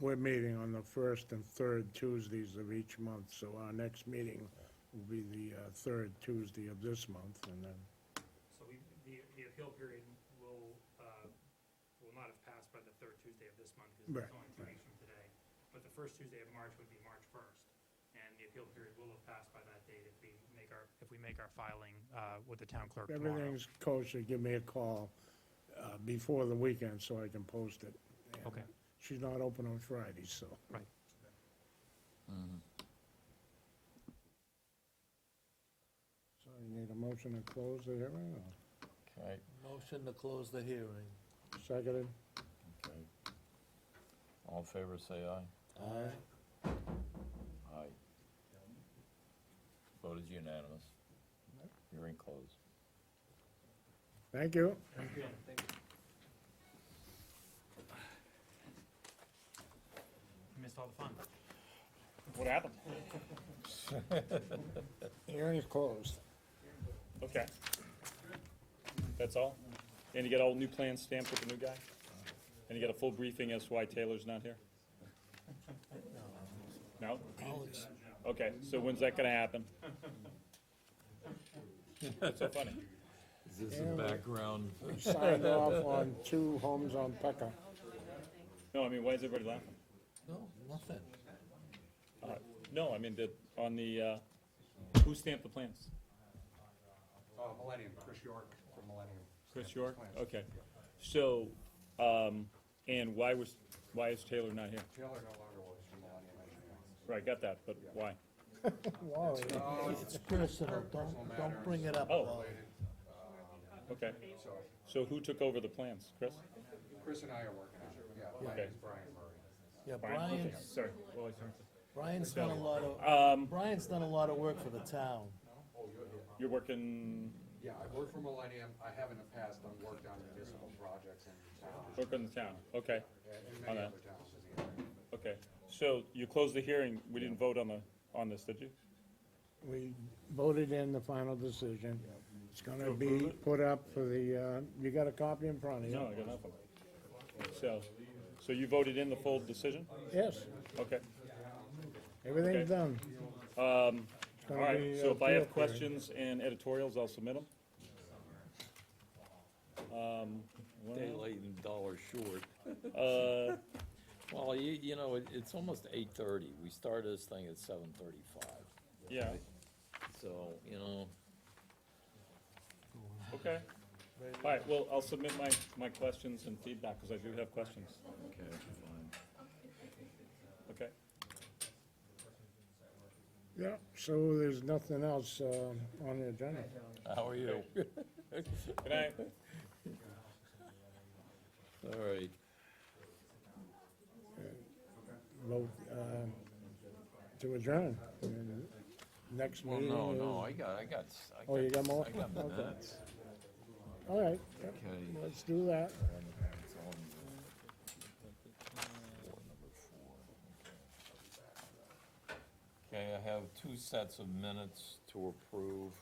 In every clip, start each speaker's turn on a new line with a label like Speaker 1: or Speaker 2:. Speaker 1: We're meeting on the first and third Tuesdays of each month, so our next meeting will be the uh, third Tuesday of this month, and then,
Speaker 2: So we, the, the appeal period will, uh, will not have passed by the third Tuesday of this month, because
Speaker 1: Right,
Speaker 2: it's only two weeks from today. But the first Tuesday of March would be March first, and the appeal period will have passed by that date if we make our, if we make our filing, uh, with the town clerk tomorrow.
Speaker 1: everything's kosher, give me a call uh, before the weekend so I can post it. And
Speaker 2: Okay.
Speaker 1: She's not open on Fridays, so.
Speaker 2: Right.
Speaker 3: Mm-hmm.
Speaker 1: So you need a motion to close the hearing, or
Speaker 3: Okay,
Speaker 4: Motion to close the hearing.
Speaker 1: seconded?
Speaker 3: okay. All in favor, say aye.
Speaker 1: Aye.
Speaker 3: Aye. Vote is unanimous. Hearing closed.
Speaker 1: Thank you.
Speaker 2: Missed all the fun.
Speaker 5: What happened?
Speaker 1: Hearing is closed.
Speaker 5: Okay. That's all? And you get all new plans stamped with the new guy? And you get a full briefing as to why Taylor's not here? No?
Speaker 4: Uh,
Speaker 5: Okay, so when's that gonna happen? That's so funny.
Speaker 3: Is this
Speaker 1: the Yeah, we-
Speaker 3: background?
Speaker 1: Signed off on two homes on Peckham.
Speaker 5: No, I mean, why is everybody laughing?
Speaker 4: No, nothing.
Speaker 5: Uh, No, I mean, that, on the, uh, who stamped the plans?
Speaker 6: Uh, Millennium, Chris York from Millennium.
Speaker 5: Chris York? Okay. So, um, and why was, why is Taylor not here?
Speaker 6: Taylor no longer was from Millennium Engineering.
Speaker 5: Right, got that, but why?
Speaker 1: Wow,
Speaker 4: It's personal, don't, don't bring it up.
Speaker 5: Oh.
Speaker 4: Paul.
Speaker 5: Okay.
Speaker 6: So
Speaker 5: So who took over the plans, Chris?
Speaker 6: Chris and I are working on it, yeah, my
Speaker 5: Okay.
Speaker 6: name's Brian Murray.
Speaker 4: Yeah,
Speaker 5: Okay,
Speaker 4: Brian's,
Speaker 5: Sorry.
Speaker 4: Brian's done a lot of,
Speaker 5: Um,
Speaker 4: Brian's done a lot of work for the town.
Speaker 5: you're working,
Speaker 6: Yeah, I've worked for Millennium, I have in the past, I've worked on municipal projects in town,
Speaker 5: working in the town, okay,
Speaker 6: and in many
Speaker 5: Okay.
Speaker 6: other towns in the area.
Speaker 5: okay. So you closed the hearing, we didn't vote on the, on this, did you?
Speaker 1: We voted in the final decision. It's gonna
Speaker 5: To approve
Speaker 1: be
Speaker 5: it?
Speaker 1: put up for the, uh, you got a copy in front of you?
Speaker 5: No, I got nothing. So, so you voted in the full decision?
Speaker 1: Yes,
Speaker 5: Okay.
Speaker 1: everything's
Speaker 5: Okay.
Speaker 1: done.
Speaker 5: Um,
Speaker 1: It's
Speaker 5: all
Speaker 1: gonna
Speaker 5: right,
Speaker 1: be,
Speaker 5: so
Speaker 1: uh,
Speaker 5: if I have
Speaker 1: appeal period.
Speaker 5: questions and editorials, I'll submit them. Um, what
Speaker 3: Day
Speaker 5: else?
Speaker 3: late and dollar short.
Speaker 5: uh,
Speaker 3: Well, you, you know, it, it's almost eight thirty. We started this thing at seven thirty-five,
Speaker 5: yeah,
Speaker 3: so, you know,
Speaker 5: okay. All right, well, I'll submit my, my questions and feedback, because I do have questions,
Speaker 3: okay, fine.
Speaker 5: okay?
Speaker 1: Yeah, so there's nothing else, uh, on the agenda.
Speaker 3: How are you?
Speaker 5: Good night.
Speaker 3: All right.
Speaker 1: Vote, um, to adjourn. And Next
Speaker 3: Well,
Speaker 1: meeting is.
Speaker 3: no, no, I got, I got, s- I got.
Speaker 1: Oh, you got more?
Speaker 3: I got
Speaker 1: Okay.
Speaker 3: minutes.
Speaker 1: All right, yeah,
Speaker 3: Okay.
Speaker 1: let's do that.
Speaker 3: It's on, uh, four, number four, okay. Okay, I have two sets of minutes to approve.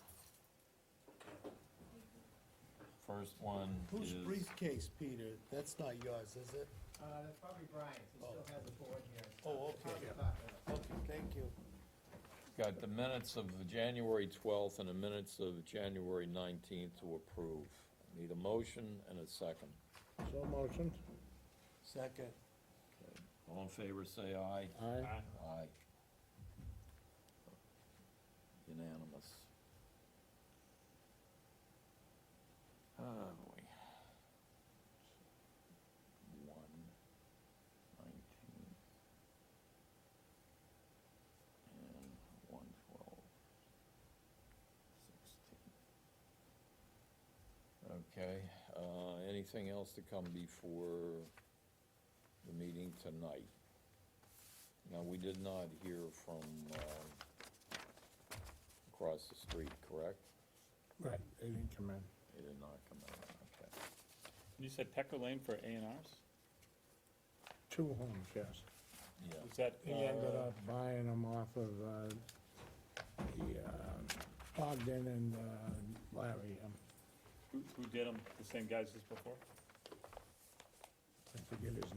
Speaker 3: First one
Speaker 4: Whose
Speaker 3: is,
Speaker 4: briefcase, Peter? That's not yours, is it?
Speaker 7: Uh, that's probably Brian's, he still has a board here.
Speaker 4: Oh, okay, okay, thank you.
Speaker 3: got the minutes of the January twelfth and the minutes of January nineteenth to approve. Need a motion and a second.
Speaker 1: So motioned.
Speaker 4: Second.
Speaker 3: All in favor, say aye.
Speaker 1: Aye.
Speaker 3: Aye. Unanimous. Oh, boy. One, nineteen. And one twelve, sixteen. Okay, uh, anything else to come before the meeting tonight? Now, we did not hear from, uh, across the street, correct?
Speaker 1: Right, they didn't come in.
Speaker 3: It did not come out, okay.
Speaker 5: You said Pecker Lane for A and Rs?
Speaker 1: Two homes, yes.
Speaker 3: Yeah,
Speaker 5: Is that,
Speaker 1: He ended
Speaker 5: uh,
Speaker 1: up buying them off of, uh, the, uh, Ogden and, uh, Larry, um,
Speaker 5: who, who did them, the same guys as before?
Speaker 1: I forget his name.